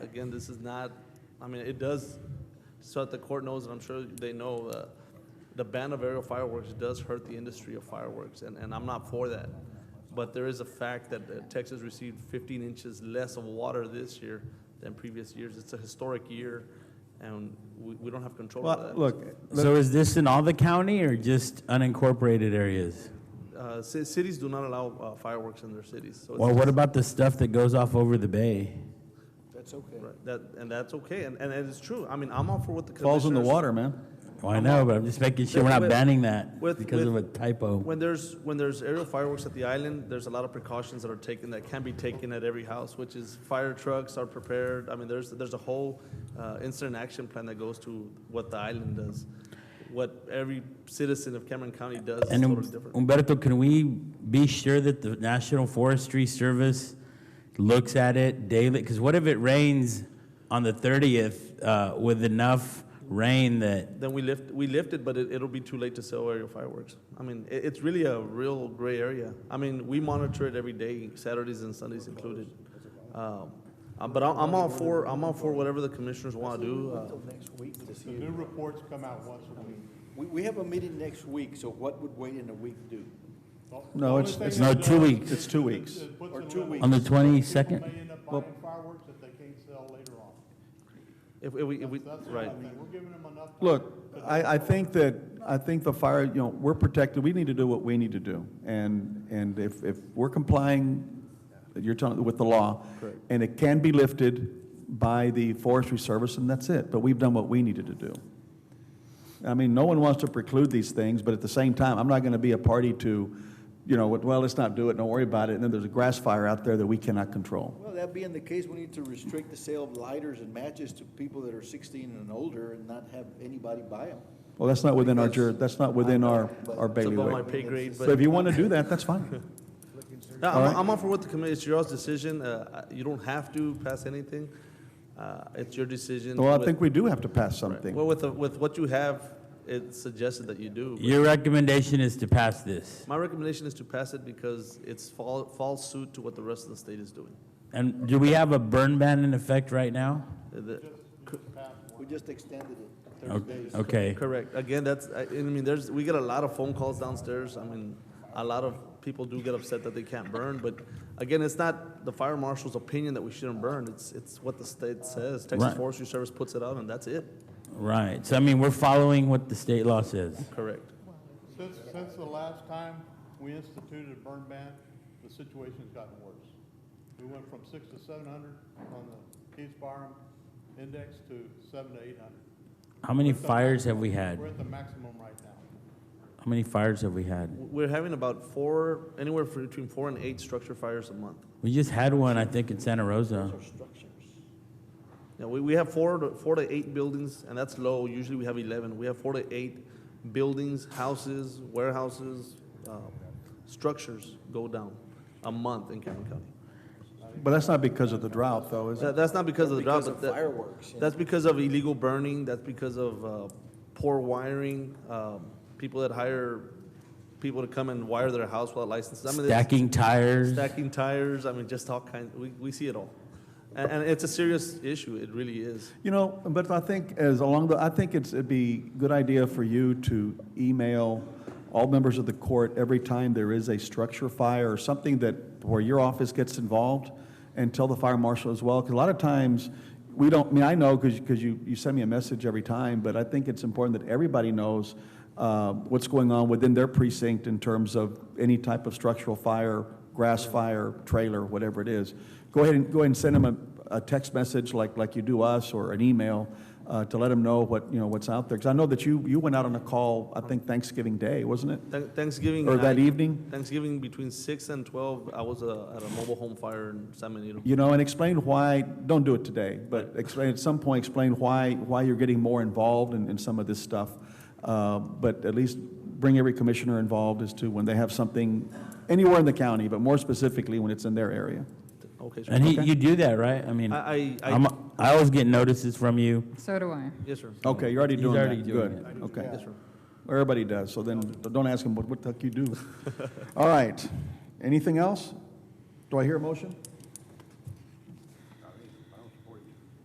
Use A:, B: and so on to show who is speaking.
A: again, this is not, I mean, it does, so that the court knows, and I'm sure they know, uh, the ban of aerial fireworks does hurt the industry of fireworks, and, and I'm not for that. But there is a fact that uh, Texas received fifteen inches less of water this year than previous years. It's a historic year, and we, we don't have control of
B: Well,
A: that.
B: look,
C: So is this in all the county or just unincorporated areas?
A: Uh, ci- cities do not allow uh, fireworks in their cities, so. it's-
C: Or what about the stuff that goes off over the bay?
D: That's okay.
A: Right, That, and that's okay, and, and and it's true. I mean, I'm all for what the commissioners.
B: falls in the water, man.
C: Well, Oh, I know, but I'm just making sure we're not
A: With-
C: banning that
A: with-
C: because of a
A: with-
C: typo.
A: When there's, when there's aerial fireworks at the island, there's a lot of precautions that are taken, that can be taken at every house, which is fire trucks are prepared. I mean, there's, there's a whole uh, incident action plan that goes to what the island does. What every citizen of Cameron County does is
C: And
A: totally
C: Um-
A: different.
C: Umberto, can we be sure that the National Forestry Service looks at it daily? Because what if it rains on the 30th uh, with enough rain that
A: Then we lift, we lift it, but it, it'll be too late to sell aerial fireworks. I mean, it, it's really a real gray area. I mean, we monitor it every day, Saturdays and Sundays included. Um, uh, But I'm, I'm all for, I'm all for whatever the commissioners want to do. Uh,
D: Until next week to see
E: The
D: if-
E: new reports come out once a week.
D: We, we have a meeting next week, so what would waiting a week do?
E: The
B: No,
E: only
B: it's-
E: thing
C: it's
E: it
C: no,
E: does
C: two weeks.
B: It's two
E: is
B: weeks.
E: it puts
D: Or
E: a
D: two
E: limit.
D: weeks.
C: on the
E: People
C: 22nd?
E: may end up
B: Well-
E: buying fireworks that they can't sell later on.
A: If, if we, if we,
E: That's the only
A: right.
E: thing. We're giving them enough. time.
B: Look, I, I think that, I think the fire, you know, we're protected, we need to do what we need to do. And, and if, if we're complying, you're telling, with the law, and it can be lifted by the Forestry Service, and that's it, but we've done what we needed to do. I mean, no one wants to preclude these things, but at the same time, I'm not gonna be a party to, you know, well, let's not do it, don't worry about it, and then there's a grass fire out there that we cannot control.
D: Well, that being the case, we need to restrict the sale of lighters and matches to people that are sixteen and older and not have anybody buy them.
B: Well, that's not within our, jur-
D: Because-
B: that's not within our, our
D: It's
A: It's above my
B: bailiwick.
A: pay grade,
B: So if
A: but
B: you wanna do that, that's fine.
A: No,
B: All
A: I'm,
B: right.
A: I'm all for what the committee, it's your all's decision. Uh, I- You don't have to pass anything. Uh, It's your decision.
B: Well, I
A: with-
B: think we do have to pass something.
A: Well, with, the- with what you have, it's suggested that you do. but
C: your recommendation is to pass this?
A: My recommendation is to pass it because it's fall, falls suit to what the rest of the state is doing.
C: And do we have a burn ban in effect right now?
A: Uh, the-
D: We just extended it
C: O-
D: thirty days.
C: Okay.
A: Correct. Again, that's, I I mean, there's, we get a lot of phone calls downstairs. I mean, a lot of people do get upset that they can't burn, but again, it's not the fire marshal's opinion that we shouldn't burn. It's, it's what the state says. Texas
C: Right.
A: Forestry Service puts it out and that's it.
C: Right. So I mean, we're following what the state law says.
A: Correct.
E: Since, since the last time we instituted a burn ban, the situation's gotten worse. We went from six to seven hundred on the Keys Barham index to seven to eight hundred.
C: How many fires have we had?
E: We're at the maximum right now.
C: How many fires have we had?
A: We're having about four, anywhere from between four and eight structure fires a month.
C: We just had one, I think, in Santa Rosa.
A: Now, we, we have four, to- four to eight buildings, and that's low. Usually we have 11. We have four to eight buildings, houses, warehouses, uh, structures go down a month in Cameron County.
B: But that's not because of the drought, though, is it?
A: That, that's not because of the drought,
D: Because
A: but
D: of
A: that-
D: fireworks.
A: that's because of illegal burning, that's because of uh, poor wiring, um, people that hire people to come and wire their house without licenses. I mean, it's-
C: Stacking tires.
A: stacking tires. I mean, just all kinds. We, we see it all, and, and it's a serious issue. It really is.
B: You know, but I think as along the, I think it's, it'd be a good idea for you to email all members of the court every time there is a structure fire or something that, where your office gets involved, and tell the fire marshal as well, because a lot of times, we don't, I mean, I know, because, you, you send me a message every time, but I think it's important that everybody knows uh, what's going on within their precinct in terms of any type of structural fire, grass fire, trailer, whatever it is. Go ahead and, go ahead and send them a, a text message like, like you do us, or an email, uh, to let them know what, you know, what's out there. Because I know that you, you went out on a call, I think Thanksgiving Day, wasn't it?
A: Thank- Thanksgiving
B: Or that
A: night-
B: evening?
A: Thanksgiving between six and twelve, I was uh, at a mobile home fire in San Benito.
B: You know, and explain why, don't do it today, but explain, at some point, explain why, why you're getting more involved in, in some of this stuff. Uh, But at least bring every commissioner involved as to when they have something anywhere in the county, but more specifically when it's in their area.
A: Okay, sure.
C: And he, you do that, right? I mean,
A: I- I- I-
C: I'm, I always get notices from you.
F: So do I.
A: yes, sir.
B: Okay, you're already
C: He's
B: doing
C: already
B: that,
C: doing
B: good, okay.
A: Yes, sir.
B: Everybody does, so then, don't ask them, what, what the heck you do? All right, anything else? Do I hear a motion?